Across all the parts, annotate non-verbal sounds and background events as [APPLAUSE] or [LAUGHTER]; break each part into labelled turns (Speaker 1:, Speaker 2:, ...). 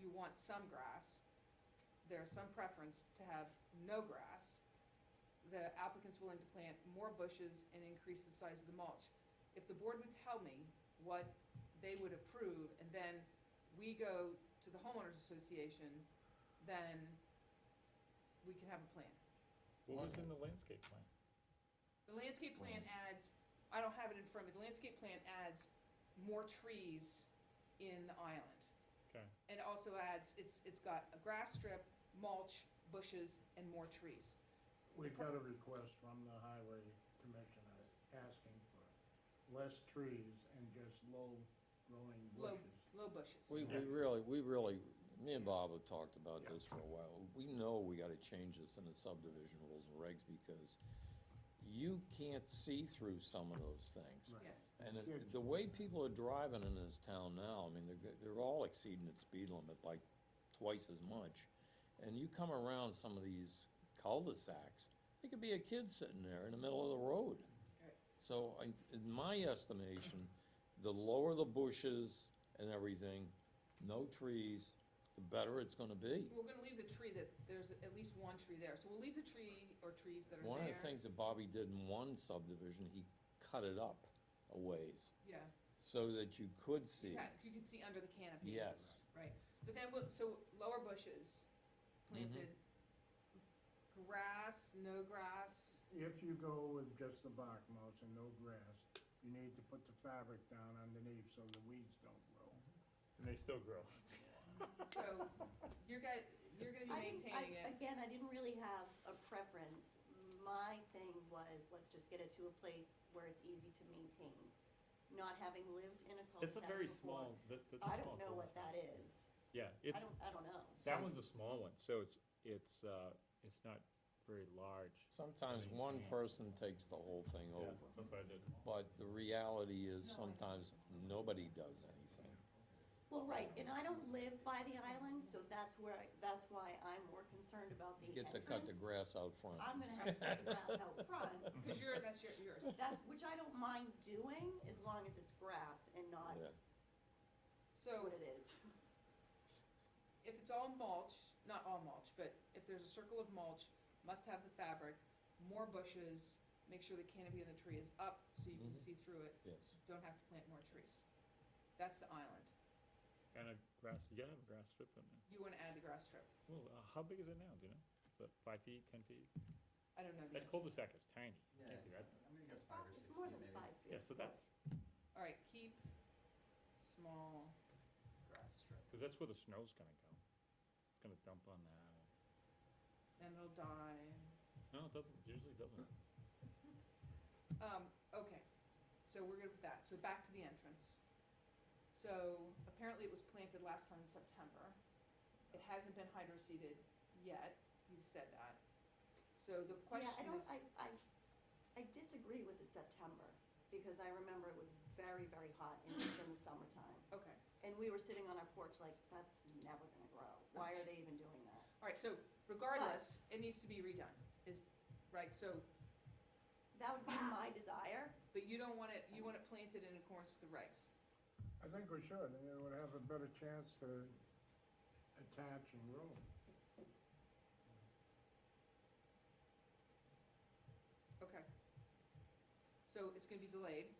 Speaker 1: want some grass. There's some preference to have no grass. The applicant's willing to plant more bushes and increase the size of the mulch. If the board would tell me what they would approve, and then we go to the homeowners association, then we can have a plan.
Speaker 2: What was in the landscape plan?
Speaker 1: The landscape plan adds, I don't have it in front of me, the landscape plan adds more trees in the island.
Speaker 2: Okay,
Speaker 1: And it also adds, it's, it's got a grass strip, mulch, bushes, and more trees.
Speaker 3: We got a request from the highway commissioner asking for less trees and just low-growing
Speaker 1: Low,
Speaker 3: bushes.
Speaker 1: low bushes.
Speaker 4: We, we
Speaker 2: Yeah.
Speaker 4: really, we really, me and Bob have talked about
Speaker 3: Yeah.
Speaker 4: this for a while. We know we gotta change this in the subdivision rules and regs because you can't see through some of those things.
Speaker 3: Right.
Speaker 1: Yeah.
Speaker 4: And
Speaker 3: Kids-
Speaker 4: it- the way people are driving in this town now, I mean, they're, they're all exceeding the speed limit by twice as much. And you come around some of these cul-de-sacs, there could be a kid sitting there in the middle of the road.
Speaker 1: Right.
Speaker 4: So I, in my estimation, the lower the bushes and everything, no trees, the better it's gonna be.
Speaker 1: We're gonna leave the tree that, there's at least one tree there, so we'll leave the tree or trees that are there.
Speaker 4: One of the things that Bobby did in one subdivision, he cut it up a ways
Speaker 1: Yeah,
Speaker 4: so that you could see.
Speaker 1: yeah, you can see under the canopy.
Speaker 4: Yes.
Speaker 1: Right, but then, we'll- so lower bushes
Speaker 4: Mm-hmm.
Speaker 1: planted, grass, no grass,
Speaker 3: If you go with just the bark mulch and no grass, you need to put the fabric down underneath so the weeds don't grow.
Speaker 2: and they still
Speaker 5: [LAUGHS]
Speaker 2: grow.
Speaker 1: so you're guys, you're gonna be
Speaker 5: I didn't- I-
Speaker 1: maintaining it.
Speaker 5: Again, I didn't really have a preference. My thing was, let's just get it to a place where it's easy to maintain, not having lived in a cul
Speaker 2: It's a very small, that, that's a
Speaker 5: I
Speaker 2: small.
Speaker 5: don't know what
Speaker 2: cul-de-sac.
Speaker 5: that is.
Speaker 2: Yeah,
Speaker 5: I
Speaker 2: it's,
Speaker 5: don't, I don't know.
Speaker 2: that one's a small one, so it's, it's, uh, it's not very large.
Speaker 4: Sometimes
Speaker 2: Something's
Speaker 4: one
Speaker 2: wrong.
Speaker 4: person takes the whole thing
Speaker 2: Yeah,
Speaker 4: over,
Speaker 2: That's what I did.
Speaker 4: but the reality
Speaker 1: No,
Speaker 4: is
Speaker 1: I-
Speaker 4: sometimes nobody does anything.
Speaker 5: Well, right, and I don't live by the island, so that's where, I- that's why I'm more concerned about the
Speaker 4: You
Speaker 5: entrance.
Speaker 4: get to cut the grass out front.
Speaker 5: I'm gonna have to cut the grass out front,
Speaker 1: Cause you're,
Speaker 4: [LAUGHS]
Speaker 1: that's your, yours.
Speaker 5: that's, which I don't mind doing, as long as it's grass and not
Speaker 4: Yeah.
Speaker 1: So
Speaker 5: what it is.
Speaker 1: if it's all mulch, not all mulch, but if there's a circle of mulch, must have the fabric, more bushes, make sure the canopy of the tree is up so you can
Speaker 4: Mhm.
Speaker 1: see through it,
Speaker 4: Yes,
Speaker 1: don't have to plant more trees. That's the island.
Speaker 2: And a grass, you gotta have a grass strip in there.
Speaker 1: You wanna add the grass strip.
Speaker 2: Well, uh, how big is it now, do you know? Is it five feet, ten feet?
Speaker 1: I don't know the
Speaker 2: That
Speaker 1: answer.
Speaker 2: cul-de-sac is tiny.
Speaker 6: Yeah,
Speaker 2: Can't be that-
Speaker 6: I'm gonna
Speaker 5: It's
Speaker 6: guess five
Speaker 5: prob-
Speaker 6: or six
Speaker 5: It's more
Speaker 6: feet
Speaker 5: than
Speaker 6: maybe.
Speaker 5: five feet.
Speaker 2: Yeah, so that's,
Speaker 1: All right, keep small grass strip.
Speaker 2: cause that's where the snow's gonna go. It's gonna dump on that.
Speaker 1: And it'll die.
Speaker 2: No, it doesn't, usually doesn't.
Speaker 1: Um, okay, so we're good with that. So back to the entrance. So apparently it was planted last time in September. It hasn't been hydro seeded yet, you said that. So the
Speaker 5: Yeah, I
Speaker 1: question
Speaker 5: don't,
Speaker 1: is,
Speaker 5: I, I, I disagree with the September, because I remember it was very, very hot in, in the summertime.
Speaker 1: okay,
Speaker 5: And we were sitting on our porch like, that's never gonna grow, why are they even doing that?
Speaker 1: all right, so regardless, it needs to be redone, is, right, so,
Speaker 5: That would be my desire,
Speaker 1: but you don't want it, you want it planted in accordance with the regs.
Speaker 3: I think we should, and it would have a better chance to attach and grow.
Speaker 1: Okay. So it's gonna be delayed.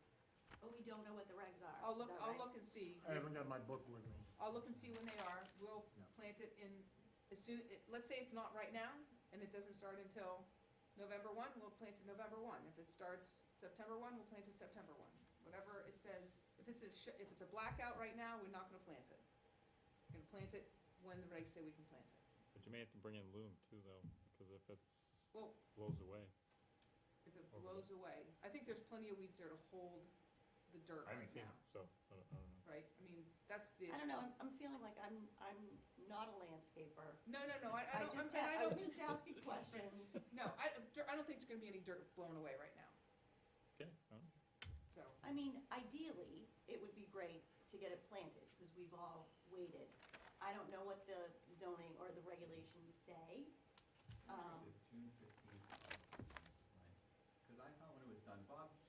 Speaker 5: but we don't know what the regs are.
Speaker 1: I'll
Speaker 5: Uh, Is
Speaker 1: look,
Speaker 5: that
Speaker 1: I'll
Speaker 5: right?
Speaker 1: look and see.
Speaker 3: I haven't got my book with me.
Speaker 1: I'll look and see when they are, we'll
Speaker 3: Yeah.
Speaker 1: plant it in, as soon, it- let's say it's not right now, and it doesn't start until November one, we'll plant it November one. If it starts September one, we'll plant it September one. Whatever it says, if it's a, sh- if it's a blackout right now, we're not gonna plant it. We're gonna plant it when the regs say we can plant it.
Speaker 2: But you may have to bring in loom too, though, because if it's,
Speaker 1: Well,
Speaker 2: blows away.
Speaker 1: if it blows away, I think there's plenty of weeds there to hold the dirt
Speaker 2: I haven't
Speaker 1: right
Speaker 2: seen it,
Speaker 1: now,
Speaker 2: so, I don't, I don't know.
Speaker 1: right? I mean, that's the
Speaker 5: I
Speaker 1: issue.
Speaker 5: don't know, I'm, I'm feeling like I'm, I'm not a landscaper.
Speaker 1: No, no, no, I, I don't, I'm-
Speaker 5: just,
Speaker 1: and I
Speaker 5: a- I was
Speaker 1: don't,
Speaker 5: just asking questions.
Speaker 1: no, I, I don't think there's gonna be any dirt blown away right now,
Speaker 2: Okay, I don't
Speaker 1: so.
Speaker 2: know.
Speaker 5: I mean, ideally, it would be great to get it planted, because we've all waited. I don't know what the zoning or the regulations say. Um,
Speaker 6: It's June fifteenth. Cause I thought when it was done, Bob